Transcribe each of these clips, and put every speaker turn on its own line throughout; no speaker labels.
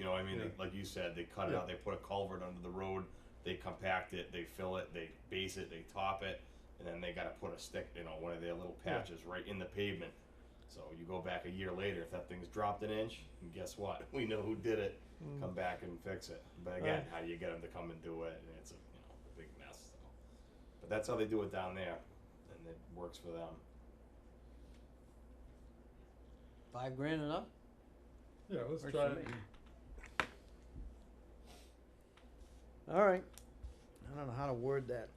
know, I mean,
Yeah.
they, like you said, they cut it
Yeah.
out, they put a culvert under the road, they compact it, they fill it, they base it, they top it, and then they got to put a stick, you know, one of their little
Yeah.
patches right in the pavement. So you go back a year later, if that thing's dropped an inch, and guess what? We know who did it. Come back and fix it. But again,
Mm. Right.
how do you get them to come and do it? And it's a you know a big mess. So. But that's how they do it down there, and it works for them.
Five grand enough?
Yeah, let's
Works
try
for
it.
me. All right. I don't know how to word that.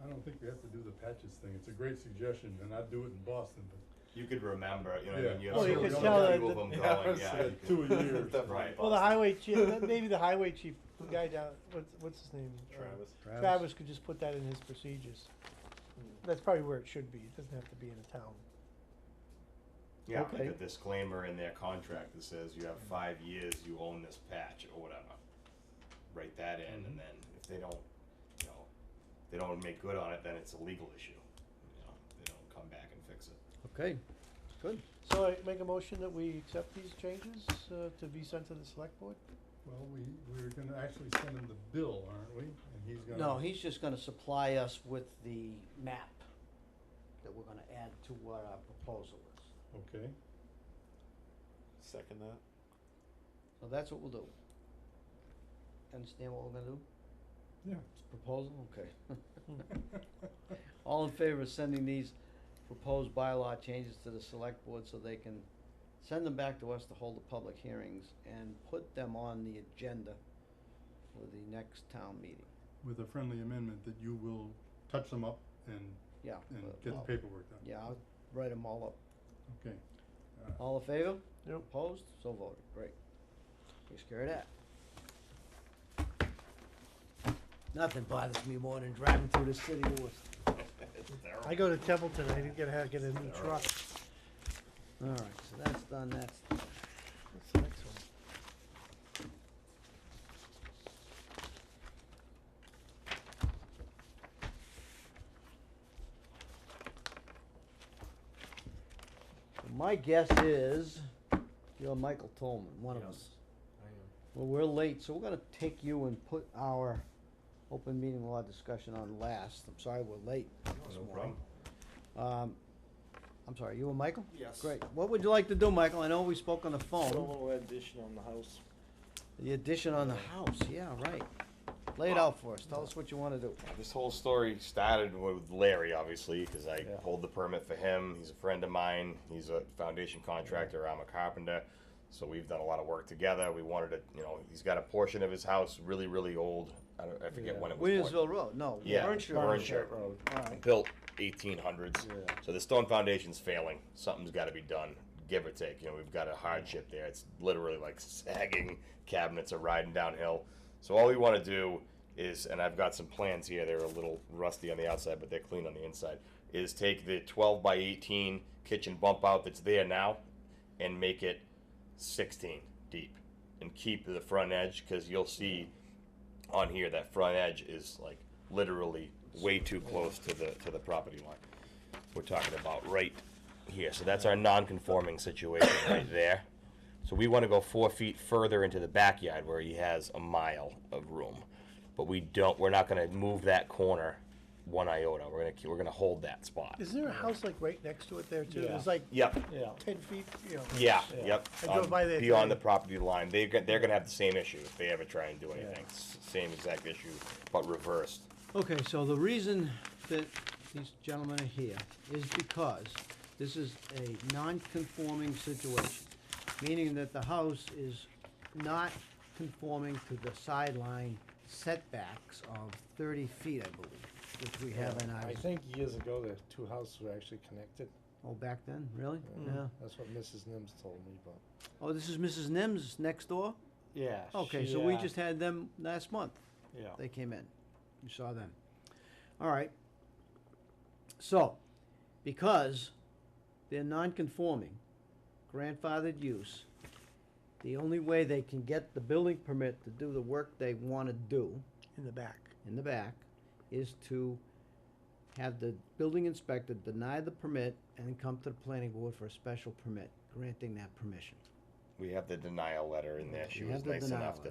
I don't think we have to do the patches thing. It's a great suggestion, and I'd do it in Boston, but
You could remember, you know,
Yeah.
I mean, you have
Well,
so
Oh, you
many
could
few
tell
of
that
them
the-
Yeah,
going.
it's,
Yeah,
uh,
you could-
two a year or
Definitely
something.
Well, the
possible.
highway chief, that- maybe the highway chief, the guy down, what's, what's his name? Uh,
Travis.
Travis could just put that in his procedures.
Hmm.
That's probably where it should be. It doesn't have to be in a town.
Yeah,
Okay.
like a disclaimer in their contract that says you have
Mm-hmm.
five years, you own this patch or whatever. Write that in,
Mm-hmm.
and then if they don't, you know, they don't make good on it, then it's a legal issue. You know, they don't come back and fix it.
Okay. Good.
So I make a motion that we accept these changes uh, to be sent to the select board?
Well, we, we were gonna actually send him the bill, aren't we? And he's gonna.
No, he's just gonna supply us with the map that we're gonna add to what our proposal is.
Okay,
Second that.
So that's what we'll do. Understand what we're gonna do?
yeah.
It's proposal, okay. All in favor of sending these proposed bylaw changes to the select board so they can send them back to us to hold the public hearings and put them on the agenda for the next town meeting?
With a friendly amendment that you will touch them up and,
Yeah.
and
well,
get
I'll-
the paperwork done.
Yeah, I'll write them all up.
Okay. Uh,
All in favor?
Yep.
Opposed? So voted. Great. Takes care of that. Nothing bothers me more than driving through the city of Worcester.
It's terrible.
I go to Templeton, I didn't get, how to get a new
Alright.
truck.
All right, so that's done, that's done.
What's the next one?
My guess is you're Michael Tolman, one of
Yes.
us. Well, we're late, so we're gonna take you and put our open meeting law discussion on last. I'm sorry we're late this
no
morning. Um, I'm sorry, you were Michael?
Yes.
Great. What would you like to do, Michael? I know we spoke on the
Put a
phone.
little addition on the house.
The addition on the house, yeah, right. Lay it out for us. Tell us what you wanna do.
This whole story started with Larry, obviously, because I
Yeah.
pulled the permit for him. He's a friend of mine. He's a foundation contractor. I'm a carpenter, so we've done a lot of work together. We wanted to, you know, he's got a portion of his house really, really old. I, don't, I forget when it was. bought.
Williamsville Road, no.
Yeah,
Warrenshire
Warrenshire.
Road.
Oh,
All right.
built 1800s.
Yeah.
So the stone foundation's failing. Something's got to be done, give or take. You know, we've got a hardship there. It's literally like sagging cabinets are riding downhill. So all we want to do is, and I've got some plans here. They're a little rusty on the outside, but they're clean on the inside. Is take the 12 by 18 kitchen bump out that's there now, and make it 16 deep, and keep the front edge because you'll see on here that front edge is like literally way too close to the to the property line. We're talking about right here. So that's our non-conforming situation right there. So we want to go four feet further into the backyard where he has a mile of room, but we don't. We're not going to move that corner one iota. We're going to we're going to hold that spot.
Is there a house like right next to it there too?
Yeah.
There's like
Yep.
Yeah.
ten feet, you know?
Yeah,
Yeah.
yep.
I drove
on-
by there
Beyond the
today.
property line, they're, go- they're gonna have the same issue if they ever try and do anything. S- Same exact issue, but reversed.
Okay, so the reason that these gentlemen are here is because this is a non-conforming situation, meaning that the house is not conforming to the sideline setbacks of thirty feet, I believe, which we have in
I
our,
think years ago, the two houses were actually connected.
oh, back then, really? Yeah.
That's what Mrs. Nims told me, but.
Oh, this is Mrs. Nims next door?
Yeah.
Okay, so we just had them last month.
Yeah.
They came in. You saw them. All right. So, because they're non-conforming, grandfathered use, the only way they can get the building permit to do the work they want to do
In the back.
in the back is to have the building inspector deny the permit and then come to the planning board for a special permit, granting that permission.
we have the denial letter in there. She
We have
was
the
nice
denial
enough to